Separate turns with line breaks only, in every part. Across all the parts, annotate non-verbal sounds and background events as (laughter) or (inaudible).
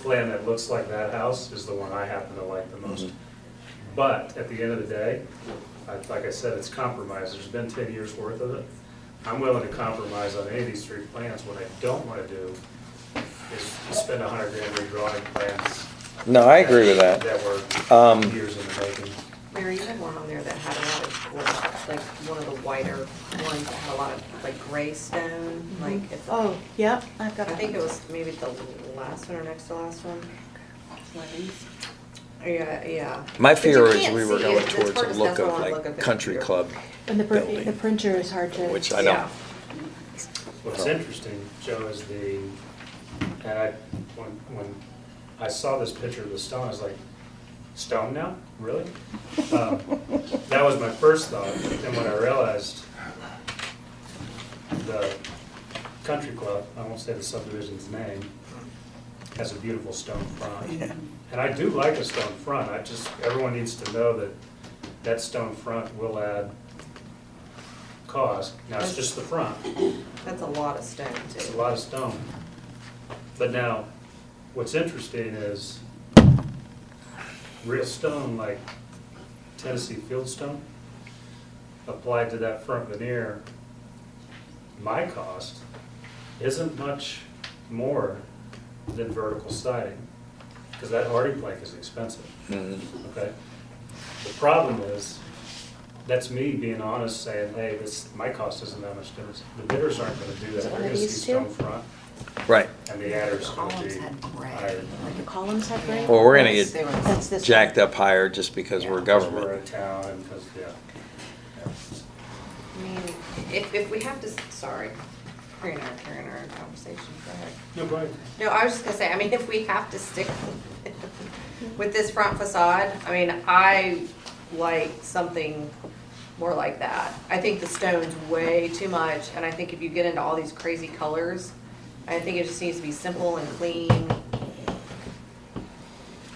plan that looks like that house is the one I happen to like the most. But at the end of the day, I- like I said, it's compromise. There's been ten years worth of it. I'm willing to compromise on any of these three plans. What I don't wanna do is spend a hundred grand redrawing plans.
No, I agree with that.
were
Um,
years in the making.
Mary, you had one on there that had a lot of, gr- like, one of the whiter ones that had a lot of, like, gray stone, like, it's, I
Oh, yep, I've got.
think Mm-hmm. it was maybe the last one or next to last one. Yeah, yeah.
My
But you
fear is
can't
we were
see it.
going
It's
towards
hard
a
to
look
tell
of
on a look
like
at the
country
computer.
club
And the printer, the
building,
printer is hard to.
which I
Yeah.
don't,
What's interesting, Joe, is the, and I, when, when I saw this picture of the stone, I was like, stone now? Really? Um, That was my first thought, but then when I realized the country club, I won't say the subdivision's name, has a beautiful stone front. And I do like a stone front, I just, everyone needs to know that that stone front will add cost. Now, it's just the front.
That's a lot of stone,
It's a
too.
lot of stone. But now, what's interesting is real stone like Tennessee fieldstone applied to that front veneer, my cost isn't much more than vertical siding, because that hardy plank is expensive,
Mhm.
okay? The problem is, that's me being honest, saying, hey, this, my cost isn't that much difference. The bidders aren't gonna do that.
Is it
They're
one of
gonna see
these two?
stone front,
right.
and the adder's gonna
Columns
be
had gray.
higher.
The columns have gray?
Well, we're gonna get
They were-
That's this.
Jacked
(laughs)
up higher just because we're
Because we're a
government.
town, and because, yeah.
I mean, if, if we have to, s- sorry, we're in our, we're in our conversation, go ahead.
No, go ahead.
No, I was just gonna say, I mean, if we have to stick with this front facade, I mean, I like something more like that. I think the stone's way too much, and I think if you get into all these crazy colors, I think it just needs to be simple and clean,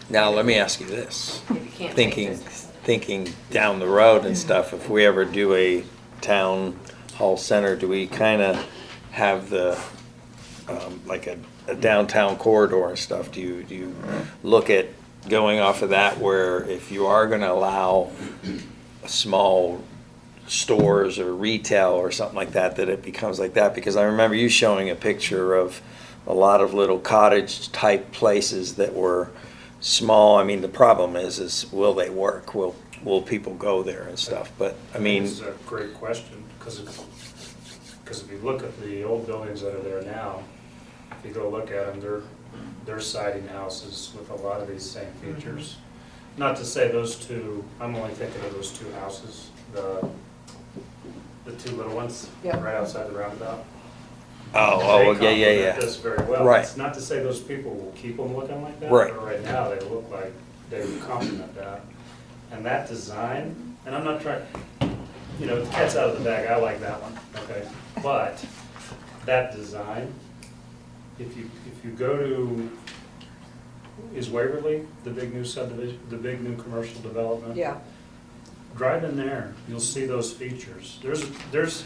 Now, let me ask you this.
if you can't paint
Thinking,
this.
thinking down the road and stuff, if we ever do a town hall center, do we kind of have the, um, like a a downtown corridor and stuff? Do you, do you look at going off of that where if you are going to allow small stores or retail or something like that, that it becomes like that? Because I remember you showing a picture of a lot of little cottage-type places that were small. I mean, the problem is, is will they work? Will, will people go there and stuff? But, I mean,
This is a great question, because if, because if you look at the old buildings that are there now, if you go look at them, they're, they're siding houses with a lot of these same features. Not to say those two, I'm only thinking of those two houses, the, the two little ones,
Yeah.
right outside the roundabout.
oh, oh,
They
yeah, yeah,
complement
yeah.
this very well.
Right.
It's not to say those people will keep them looking like that.
Right.
But right now, they look like they would complement that. And that design, and I'm not trying, you know, the cat's out of the bag, I like that one, okay? But that design, if you, if you go to, is Waverly the big new subdivision, the big new commercial development?
Yeah,
Drive in there, you'll see those features. There's, there's,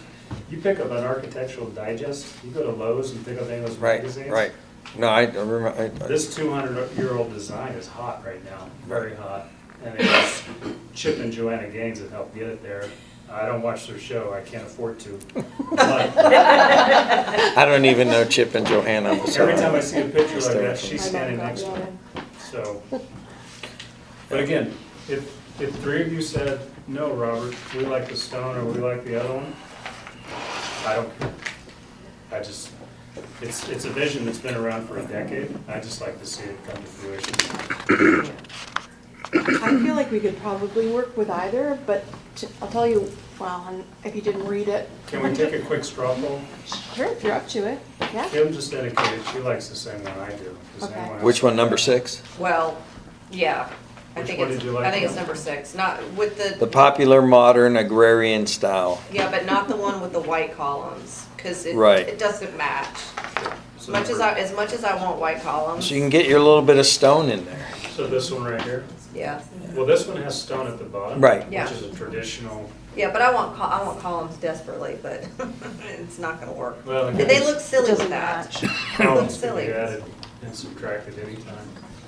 you pick up an architectural digest, you go to Lowe's and pick up any of those
Right,
magazines.
right. No, I remember, I- I-
This two hundred year old design is hot right now, very hot. And it was Chip and Joanna Gaines that helped get it there. I don't watch their show, I can't afford
(laughs)
to. But
I don't even know Chip and Johanna. I'm
Every time I
sorry.
see a picture like that,
Hysterical.
she's standing next to me, so. But again, if, if three of you said, no, Robert, we like the stone or we like the other one, I don't care. I just, it's, it's a vision that's been around for a decade. I just like to see it come to fruition.
I feel like we could probably work with either, but t- I'll tell you, well, and if you didn't read it.
Can we take a quick straw poll?
Sure, if you're up to it, yeah.
Kim just indicated she likes the same one I do. Does
Okay.
anyone else-
Which one, number six?
well, yeah, I
Which
think
one
it's,
did you like,
I think it's
Kim?
number six, not with
The popular modern agrarian style.
Yeah, but not the one with the white columns, because it,
Right.
it doesn't match. As
So
much as I, as much as I want white columns,
So you can get your little bit of stone in there.
So this one right here?
yeah.
Well, this one has stone at the bottom.
Right.
Yeah.
Which is a traditional,
Yeah, but I want, col- I want columns desperately, but (laughs) it's not gonna work.
well.
They look silly with
Doesn't
that.
match.
They look
columns could be
silly.
added and subtract it anytime.